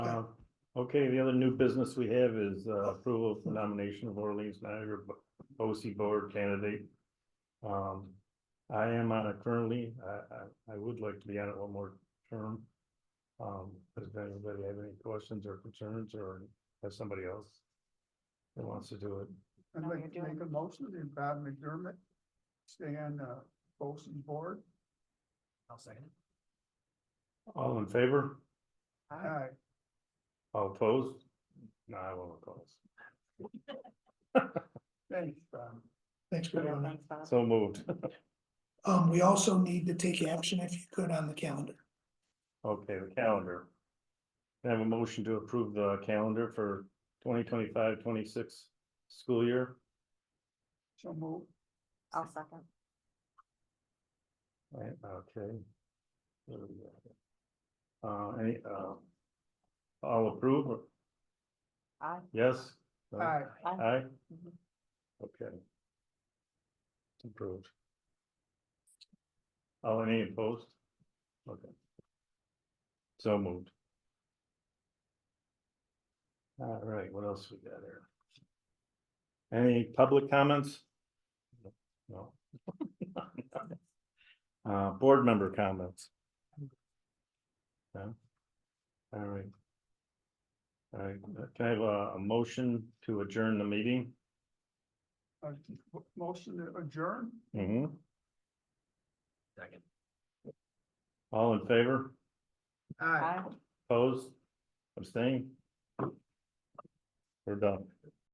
Uh, Okay, the other new business we have is uh, approval of the nomination of Orleans Niagara Bo- OC Board candidate. Um, I am on it currently. I, I, I would like to be on it one more term. Um, does anybody have any questions or concerns or has somebody else that wants to do it? I'd No, like you're to make a motion to Bob McDermott stay on uh BOSI's board. I'll second it. All in favor? Aye. All opposed? No, I won't oppose. Thanks, Bob. Thanks, Yeah, Brianna. thanks, Bob. So moved. Um, we also need to take action if you could on the calendar. Okay, the calendar. Can I have a motion to approve the calendar for 2025-26 school year. So move. I'll second. Right, okay. Uh, any, uh. All approve, or- Aye. yes? No? Aye. Aye? Mhm. Mm-hmm. Okay. Approved. Oh, any opposed? Okay. So moved. All right, what else we got here? Any public comments? No. Uh, board member comments? No? All right. All right, can I have a, a motion to adjourn the meeting? Uh, mo- Motion to adjourn. hmm Second. All in favor? Aye. Opposed? Abstain? We're done.